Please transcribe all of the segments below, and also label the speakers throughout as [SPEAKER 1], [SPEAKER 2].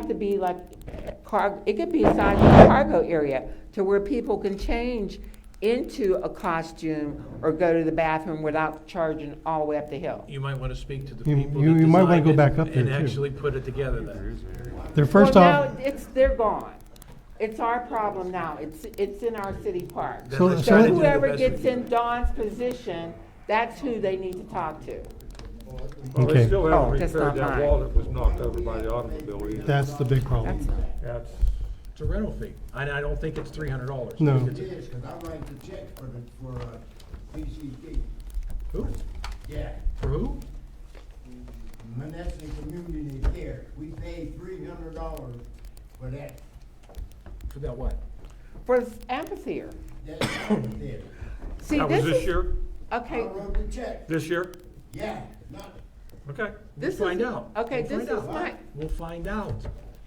[SPEAKER 1] to be like cargo, it could be assigned to the cargo area to where people can change into a costume or go to the bathroom without charging all the way up the hill.
[SPEAKER 2] You might want to speak to the
[SPEAKER 3] You-
[SPEAKER 2] people that
[SPEAKER 3] you- you might wanna
[SPEAKER 2] designed
[SPEAKER 3] go
[SPEAKER 2] it
[SPEAKER 3] back up
[SPEAKER 2] and
[SPEAKER 3] there, too.
[SPEAKER 2] actually put it together then.
[SPEAKER 3] Their first
[SPEAKER 1] Well,
[SPEAKER 3] off,
[SPEAKER 1] now, it's, they're gone. It's our problem now. It's, it's in our city park.
[SPEAKER 2] Then
[SPEAKER 3] So-
[SPEAKER 2] let's
[SPEAKER 3] so
[SPEAKER 2] try
[SPEAKER 1] So
[SPEAKER 2] to do the
[SPEAKER 1] whoever
[SPEAKER 2] best we
[SPEAKER 1] gets
[SPEAKER 2] can.
[SPEAKER 1] in Dawn's position, that's who they need to talk to.
[SPEAKER 4] Well,
[SPEAKER 3] Okay.
[SPEAKER 4] they still
[SPEAKER 1] Oh,
[SPEAKER 4] haven't
[SPEAKER 1] that's not
[SPEAKER 4] repaired that
[SPEAKER 1] mine.
[SPEAKER 4] wall that was knocked over by the automobile either.
[SPEAKER 3] that's the big problem.
[SPEAKER 4] That's,
[SPEAKER 2] It's a rental fee, and I don't think it's three hundred dollars.
[SPEAKER 3] No.
[SPEAKER 5] It is, because I write the check for the, for, uh, PCD.
[SPEAKER 2] Who?
[SPEAKER 5] Yeah.
[SPEAKER 2] For who?
[SPEAKER 5] Menneson Community Care, we paid three hundred dollars for that,
[SPEAKER 2] For that what?
[SPEAKER 1] For this amphitheater.
[SPEAKER 5] that there.
[SPEAKER 1] See,
[SPEAKER 4] that was
[SPEAKER 1] this
[SPEAKER 4] this
[SPEAKER 1] is,
[SPEAKER 4] year,
[SPEAKER 5] I
[SPEAKER 1] okay,
[SPEAKER 5] wrote the check,
[SPEAKER 4] this year,
[SPEAKER 5] yeah, not,
[SPEAKER 4] okay.
[SPEAKER 1] this is.
[SPEAKER 2] We'll find out.
[SPEAKER 1] Okay,
[SPEAKER 2] We'll
[SPEAKER 1] this
[SPEAKER 2] find
[SPEAKER 1] is
[SPEAKER 2] out.
[SPEAKER 1] my,
[SPEAKER 2] We'll find out.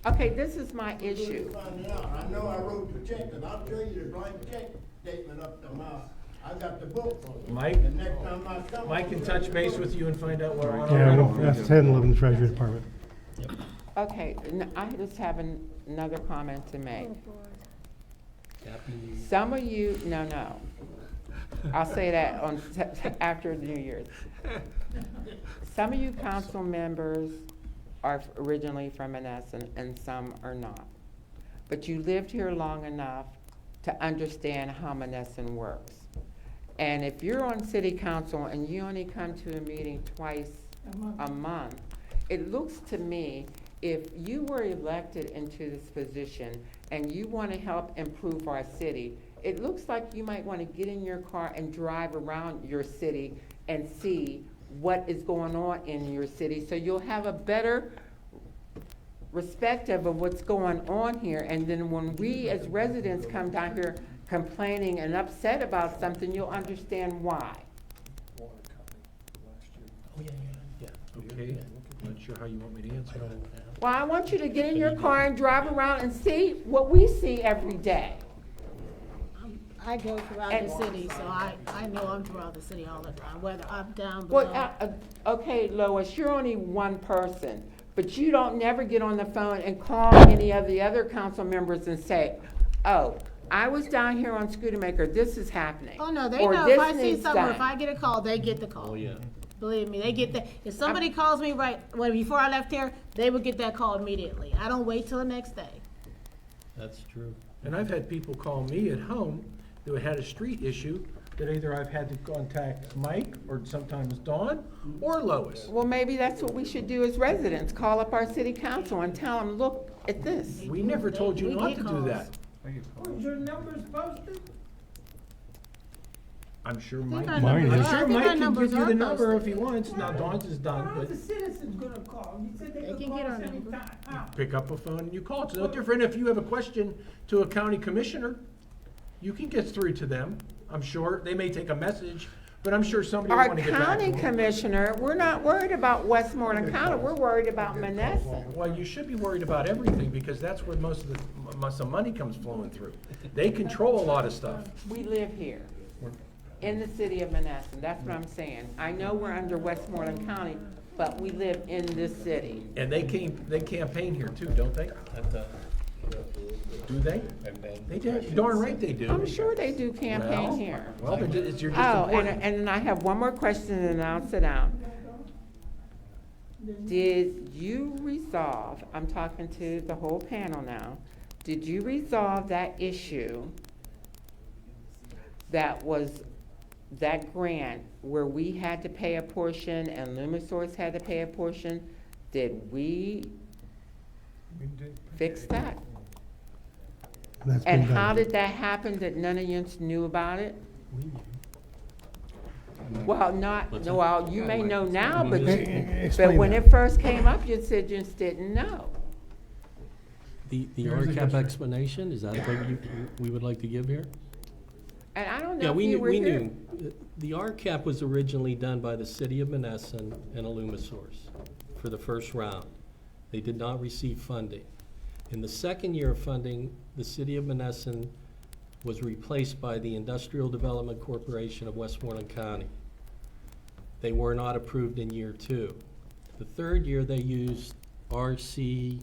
[SPEAKER 1] okay, this is my
[SPEAKER 5] you
[SPEAKER 1] issue.
[SPEAKER 5] find it out, I know I wrote the check, and I'll tell you the blank check statement up to my, I got the book for it.
[SPEAKER 2] Mike?
[SPEAKER 5] The next time I come.
[SPEAKER 2] Mike can touch base with you and find out what. our
[SPEAKER 3] Yeah,
[SPEAKER 2] rental
[SPEAKER 3] well,
[SPEAKER 2] fee is.
[SPEAKER 3] that's handled in the Treasury Department.
[SPEAKER 1] Okay, n- I just have an- another comment to make. Some of you, no, no. I'll say that on, after the New Year's. Some of you council members are originally from Menneson and some are not. But you lived here long enough to understand how Menneson works. And if you're on city council and you only come to a meeting twice a month, it looks to me, if you were elected into this position and you want to help improve our city, it looks like you might want to get in your car and drive around your city and see what is going on in your city, so you'll have a better respective of what's going on here, and then when we as residents come down here complaining and upset about something, you'll understand why.
[SPEAKER 2] Okay, not sure how you want me to answer that.
[SPEAKER 1] Well, I want you to get in your car and drive around and see what we see every day.
[SPEAKER 6] I go throughout
[SPEAKER 1] And-
[SPEAKER 6] the city, so I, I know I'm throughout the city all the time, whether I'm down
[SPEAKER 1] Well,
[SPEAKER 6] below.
[SPEAKER 1] uh, uh, okay, Lois, you're only one person, but you don't never get on the phone and call any of the other council members and say, oh, I was down here on Scootamaker, this is happening.
[SPEAKER 6] Oh, no, they
[SPEAKER 1] or
[SPEAKER 6] know, if
[SPEAKER 1] this
[SPEAKER 6] I see
[SPEAKER 1] needs
[SPEAKER 6] something, or
[SPEAKER 1] done.
[SPEAKER 6] if I get a call, they get the call. Oh, yeah. Believe me, they get the, if somebody calls me right, well, before I left here, they would get that call immediately. I don't wait till the next day.
[SPEAKER 7] That's true.
[SPEAKER 2] And I've had people call me at home that had a street issue that either I've had to contact Mike or sometimes Dawn or Lois.
[SPEAKER 1] Well, maybe that's what we should do as residents, call up our city council and tell them, look at this.
[SPEAKER 2] We never told you
[SPEAKER 6] We
[SPEAKER 2] not
[SPEAKER 6] get
[SPEAKER 2] to do
[SPEAKER 6] calls.
[SPEAKER 2] that.
[SPEAKER 5] Was your numbers posted?
[SPEAKER 2] I'm sure
[SPEAKER 6] I think
[SPEAKER 2] Mike,
[SPEAKER 6] our
[SPEAKER 3] Mine
[SPEAKER 2] I'm
[SPEAKER 6] numbers
[SPEAKER 3] is.
[SPEAKER 6] are-
[SPEAKER 2] sure
[SPEAKER 6] I think our
[SPEAKER 2] Mike can
[SPEAKER 6] numbers
[SPEAKER 2] give you
[SPEAKER 6] are
[SPEAKER 2] the number if
[SPEAKER 6] posted.
[SPEAKER 2] he wants. Now Dawn's is done,
[SPEAKER 8] How are the
[SPEAKER 2] but
[SPEAKER 8] citizens gonna call? You said
[SPEAKER 6] They
[SPEAKER 8] they could
[SPEAKER 6] can
[SPEAKER 8] call
[SPEAKER 6] get our
[SPEAKER 8] us
[SPEAKER 6] number.
[SPEAKER 8] anytime. How?
[SPEAKER 2] pick up a phone and you call. It's no different if you have a question to a county commissioner. You can get through to them, I'm sure. They may take a message, but I'm sure somebody will
[SPEAKER 1] Our
[SPEAKER 2] want to get back to
[SPEAKER 1] county
[SPEAKER 2] them.
[SPEAKER 1] commissioner, we're not worried about Westmoreland County, we're worried about Menneson.
[SPEAKER 2] Well, you should be worried about everything because that's where most of the, m- most of the money comes flowing through. They control a lot of stuff.
[SPEAKER 1] We live here, in the city of Menneson, that's what I'm saying. I know we're under Westmoreland County, but we live in this city.
[SPEAKER 2] And they came, they campaign here too, don't they?
[SPEAKER 7] I've done,
[SPEAKER 2] Do they?
[SPEAKER 7] I've been.
[SPEAKER 2] They do, darn right they do.
[SPEAKER 1] I'm sure they do campaign here.
[SPEAKER 2] Well, they're ju- it's, you're just
[SPEAKER 1] Oh, and,
[SPEAKER 2] important.
[SPEAKER 1] and then I have one more question and then I'll sit down. Did you resolve, I'm talking to the whole panel now, did you resolve that issue that was, that grant where we had to pay a portion and Lumisource had to pay a portion? Did we fix that?
[SPEAKER 3] That's
[SPEAKER 1] And
[SPEAKER 3] been
[SPEAKER 1] how
[SPEAKER 3] done.
[SPEAKER 1] did that happen that none of you knew about it? Well, not,
[SPEAKER 7] What's
[SPEAKER 1] no,
[SPEAKER 7] that?
[SPEAKER 1] well, you may know now, but
[SPEAKER 3] Eh, eh,
[SPEAKER 1] you, but
[SPEAKER 3] Explain
[SPEAKER 1] when
[SPEAKER 3] that.
[SPEAKER 1] it first came up, you said you just didn't know.
[SPEAKER 7] The, the
[SPEAKER 3] Here's the
[SPEAKER 7] RCAP
[SPEAKER 3] history.
[SPEAKER 7] explanation, is that what you, we would like to give here?
[SPEAKER 1] And I don't
[SPEAKER 7] Yeah,
[SPEAKER 1] know if
[SPEAKER 7] we
[SPEAKER 1] you
[SPEAKER 7] knew,
[SPEAKER 1] were
[SPEAKER 7] we
[SPEAKER 1] here.
[SPEAKER 7] knew. Uh, The RCAP was originally done by the city of Menneson and Alumisource for the first round. They did not receive funding. In the second year of funding, the city of Menneson was replaced by the Industrial Development Corporation of Westmoreland County. They were not approved in year two. The third year, they used RCAG